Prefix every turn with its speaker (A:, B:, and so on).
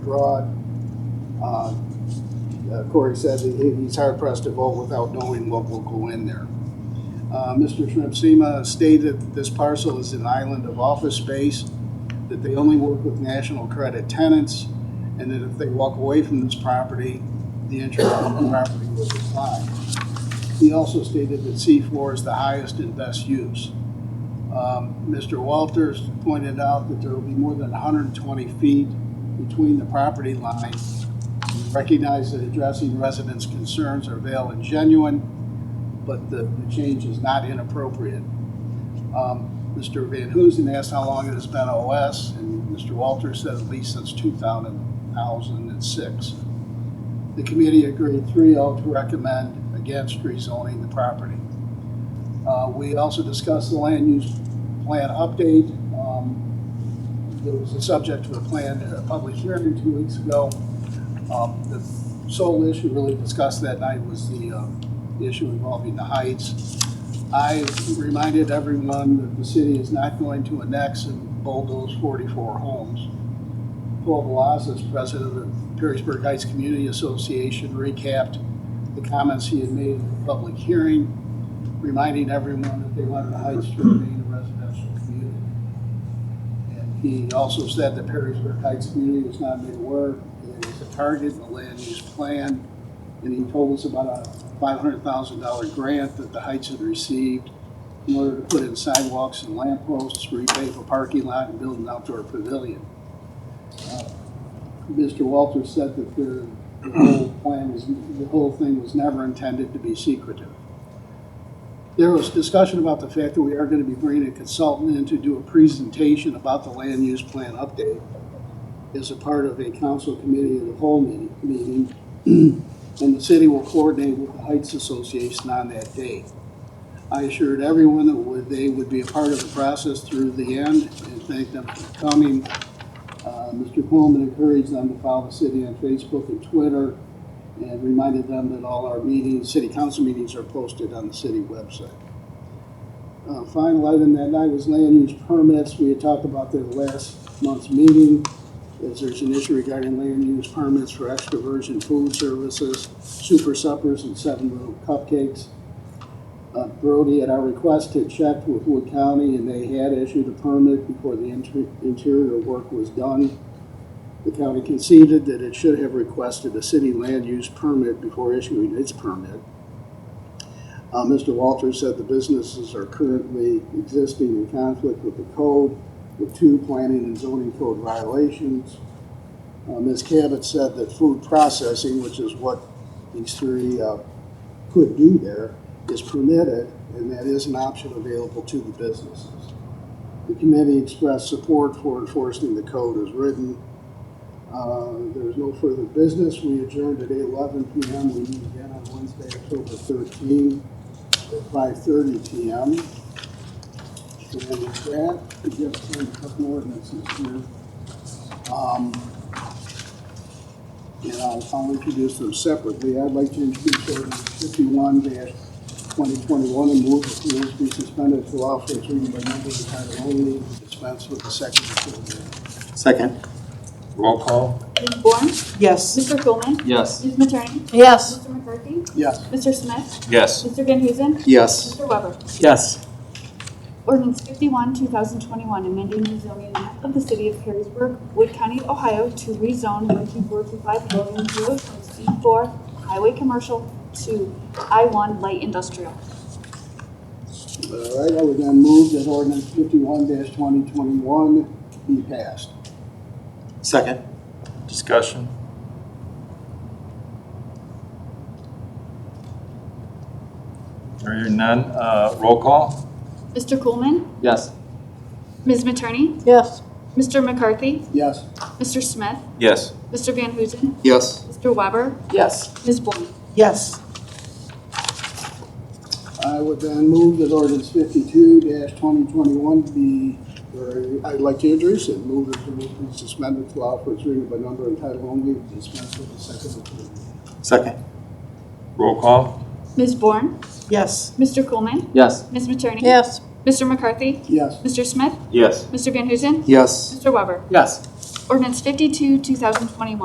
A: broad. Uh, uh, Corey said that he- he's hard pressed to vote without knowing what will go in there. Uh, Mr. Shrimpsima stated that this parcel is an island of office space, that they only work with national credit tenants, and that if they walk away from this property, the interest on the property will decline. He also stated that C4 is the highest and best use. Um, Mr. Walters pointed out that there will be more than 120 feet between the property lines. Recognize that addressing residents' concerns are valid and genuine, but the the change is not inappropriate. Um, Mr. Van Huzen asked how long it has been OS, and Mr. Walters said at least since 2006. The committee agreed 3-0 to recommend against rezoning the property. Uh, We also discussed the land use plan update. Um, There was a subject to a plan, a public hearing two weeks ago. Um, The sole issue really discussed that night was the um, issue involving the heights. I reminded everyone that the city is not going to annex and bulldoze 44 homes. Paul Velazquez, president of the Perrysburg Heights Community Association, recapped the comments he had made in the public hearing, reminding everyone that they wanted the Heights to remain a residential community. And he also said that Perrysburg Heights community was not made aware, that it was a target in the land use plan. And he told us about a five hundred thousand dollar grant that the Heights had received in order to put in sidewalks and lamp posts, repave a parking lot, and build an outdoor pavilion. Mr. Walter said that the, the whole plan was, the whole thing was never intended to be secretive. There was discussion about the fact that we are gonna be bringing a consultant in to do a presentation about the land use plan update as a part of a council committee of the whole meeting, meeting. And the city will coordinate with the Heights Association on that day. I assured everyone that would- they would be a part of the process through the end and thanked them for coming. Uh, Mr. Coleman encouraged them to follow the city on Facebook and Twitter and reminded them that all our meetings, city council meetings are posted on the city website. Uh, Final item that night was land use permits. We had talked about that last month's meeting. As there's an issue regarding land use permits for extra virgin food services, super suppers, and seven little cupcakes. Uh, Brody, at our request, had checked with Wood County, and they had issued a permit before the inter- interior work was done. The county conceded that it should have requested a city land use permit before issuing its permit. Uh, Mr. Walters said the businesses are currently existing in conflict with the code, with two planning and zoning code violations. Uh, Ms. Cabot said that food processing, which is what these three uh, could do there, is permitted, and that is an option available to the businesses. The committee expressed support for enforcing the code as written. Uh, There's no further business. We adjourned at 11 PM. We meet again on Wednesday, October 13, at 5:30 PM. And with that, we just have a couple ordinances here. Um, And I'll, I'll introduce them separately. I'd like to introduce ordinance 51-2021 and move that rules be suspended to allow for its reading by number and title only, and dispense with the second and third reading.
B: Second. Roll call.
C: Ms. Bourne,
D: Yes.
C: Mr. Coleman,
B: Yes.
C: Ms. Matroni,
D: Yes.
C: Mr. McCarthy,
A: Yes.
C: Mr. Smith,
B: Yes.
C: Mr. Van Huzen,
B: Yes.
C: Mr. Weber.
B: Yes.
C: Ordinance fifty-one, two thousand twenty-one, amending the zoning map of the city of Perrysburg, Wood County, Ohio to rezone one two four two five Logan Road from C four highway commercial to I one light industrial.
A: All right, I would then move that ordinance fifty-one twenty twenty-one be passed.
B: Second. Discussion. Are hearing none, uh, roll call?
C: Mr. Coleman,
B: Yes.
C: Ms. Matroni,
D: Yes.
C: Mr. McCarthy,
A: Yes.
C: Mr. Smith,
B: Yes.
C: Mr. Van Huzen,
B: Yes.
C: Mr. Weber,
D: Yes.
C: Ms. Bourne.
D: Yes.
A: I would then move that ordinance fifty-two twenty twenty-one be, or I'd like to introduce it, move that the rule be suspended to allow for its reading by number and title only, and dispense with the second and third reading.
B: Second. Roll call?
C: Ms. Bourne,
D: Yes.
C: Mr. Coleman,
B: Yes.
C: Ms. Matroni.
D: Yes.
C: Mr. McCarthy,
A: Yes.
C: Mr. Smith,
B: Yes.
C: Mr. Van Huzen,
B: Yes.
C: Mr. Weber.
B: Yes.
C: Ordinance 52, 2021,